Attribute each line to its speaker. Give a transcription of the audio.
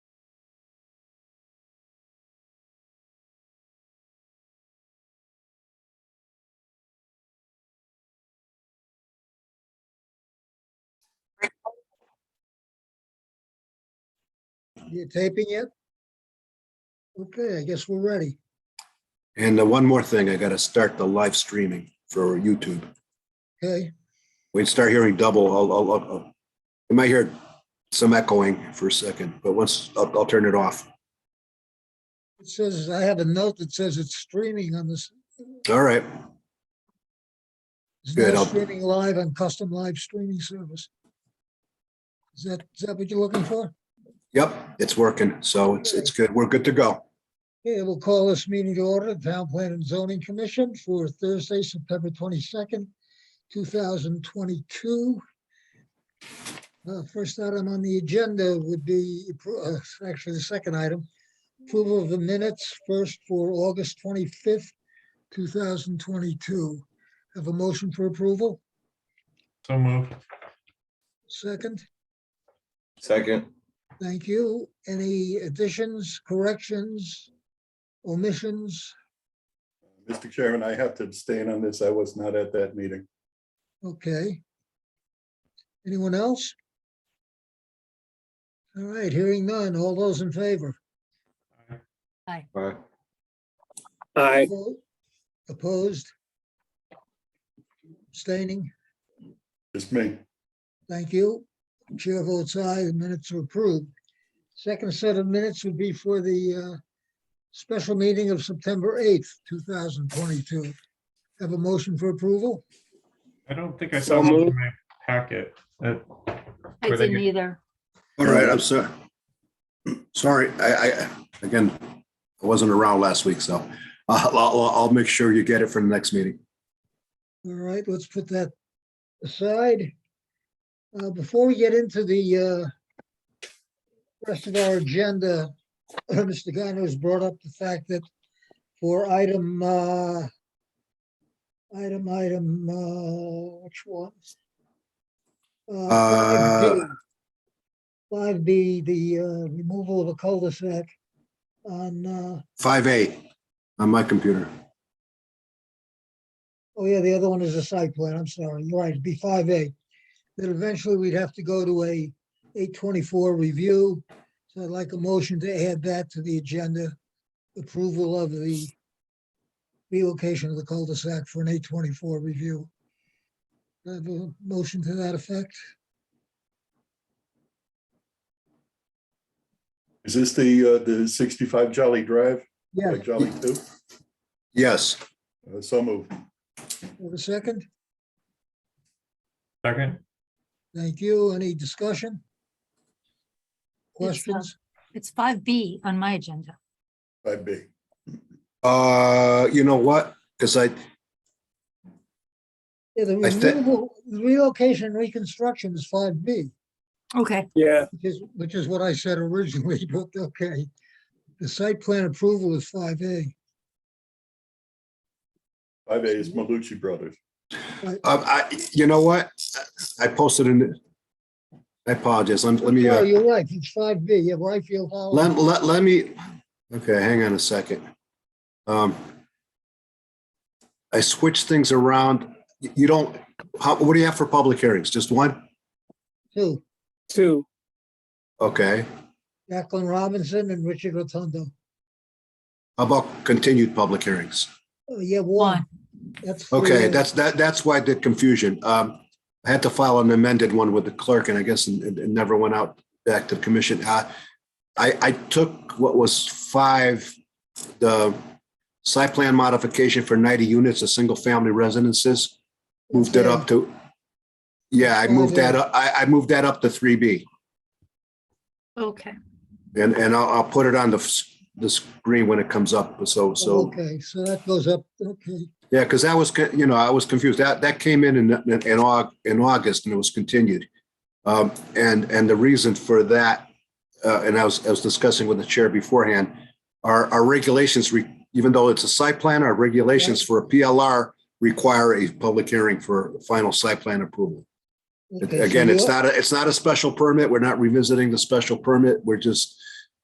Speaker 1: You taping yet? Okay, I guess we're ready.
Speaker 2: And uh, one more thing, I gotta start the live streaming for YouTube.
Speaker 1: Okay,
Speaker 2: We start hearing double, I'll, I'll, I'll- I'll, you might hear some echoing for a second, but once, I'll, I'll turn it off.
Speaker 1: it says, I have a note that says it's streaming on this.
Speaker 2: All right,
Speaker 1: It's
Speaker 2: Good,
Speaker 1: now
Speaker 2: I'll-
Speaker 1: streaming live on custom live streaming service. Is that, is that what you're looking for?
Speaker 2: yep, it's working, so it's, it's good, we're good to go.
Speaker 1: Okay, we'll call this meeting to order, Town Plan and Zoning Commission for Thursday, September twenty-second, two thousand twenty-two. Uh, first item on the agenda would be, appro- uh, actually the second item, approval of the minutes first for August twenty-fifth, two thousand twenty-two. Have a motion for approval,
Speaker 3: So moved.
Speaker 1: second,
Speaker 4: Second,
Speaker 1: thank you. Any additions, corrections, omissions?
Speaker 5: Mr. Chairman, I have to abstain on this. I was not at that meeting.
Speaker 1: Okay. Anyone else? All right, hearing none. All those in favor?
Speaker 4: aye,
Speaker 6: Aye.
Speaker 1: Opposed? Abstaining?
Speaker 5: Just me.
Speaker 1: Thank you. Chair votes aye, the minutes are approved. Second set of minutes would be for the uh, special meeting of September 8th, 2022. Have a motion for approval?
Speaker 3: I don't think I
Speaker 6: So
Speaker 3: saw one in
Speaker 6: moved.
Speaker 3: my packet. Uh,
Speaker 7: I
Speaker 3: Were they
Speaker 7: didn't
Speaker 3: good?
Speaker 7: either.
Speaker 2: All right, I'm sorry. Sorry, I, I, again, I wasn't around last week, so I'll, I'll, I'll make sure you get it for the next meeting.
Speaker 1: All right, let's put that aside. Uh, Before we get into the uh, rest of our agenda, Mr. Gano has brought up the fact that for item, uh, item, item, uh, which one?
Speaker 2: Uh,
Speaker 1: Five B, the uh, removal of a cul-de-sac on, uh,
Speaker 2: Five eight on my computer.
Speaker 1: Oh, yeah, the other one is a site plan, I'm sorry, you're right, it'd be five A. Then eventually we'd have to go to a eight twenty-four review. So I'd like a motion to add that to the agenda, approval of the relocation of the cul-de-sac for an eight twenty-four review. Do I Have a motion to that effect?
Speaker 5: Is this the, uh, the sixty-five Jolly Drive?
Speaker 1: Yeah.
Speaker 5: Like Jolly Two?
Speaker 2: Yes,
Speaker 5: Uh, So moved.
Speaker 1: Have a second?
Speaker 3: Second,
Speaker 1: Thank you. Any discussion?
Speaker 7: Yes, uh,
Speaker 1: Questions?
Speaker 7: It's five B on my agenda.
Speaker 5: Five B.
Speaker 2: uh, you know what? Cause I,
Speaker 1: Yeah, the
Speaker 2: I thi-
Speaker 1: removal, the relocation and reconstruction is five B.
Speaker 7: Okay,
Speaker 6: Yeah,
Speaker 1: Which is, which is what I said originally, but okay. The site plan approval is five A.
Speaker 5: Five A is Malucci Brothers.
Speaker 2: Um, I, you know what? I posted in, I apologize. Let, let me,
Speaker 1: Oh,
Speaker 2: uh,
Speaker 1: you're right, it's five B, yeah, right field. Hollow.
Speaker 2: let, let, let me, okay, hang on a second. Um, I switched things around. You- You don't, how, what do you have for public hearings? Just one?
Speaker 1: Two,
Speaker 6: two.
Speaker 2: Okay.
Speaker 1: Jacqueline Robinson and Richard Rotundo.
Speaker 2: How about continued public hearings?
Speaker 1: Oh, yeah, one,
Speaker 7: one.
Speaker 1: that's. three
Speaker 2: Okay,
Speaker 1: A.
Speaker 2: that's, that, that's why the confusion. Um, I had to file an amended one with the clerk and I guess it, it never went out back to the commission. Uh, I, I took what was five, the site plan modification for ninety units of single family residences, moved it up to, yeah, I moved that up, I, I moved that up to three B.
Speaker 7: Okay,
Speaker 2: And, and I'll, I'll put it on the, s- the screen when it comes up. So, so,
Speaker 1: Okay, so that goes up, okay,
Speaker 2: yeah, because that was, co- you know, I was confused. That, that came in in, in Aug, in August and it was continued. Um, and, and the reason for that, uh, and I was, I was discussing with the chair beforehand, our, our regulations, re- even though it's a site plan, our regulations for a PLR require a public hearing for final site plan approval.
Speaker 1: okay. so
Speaker 2: Again, it's
Speaker 1: you-
Speaker 2: not, a it's not a special permit. We're not revisiting the special permit. We're just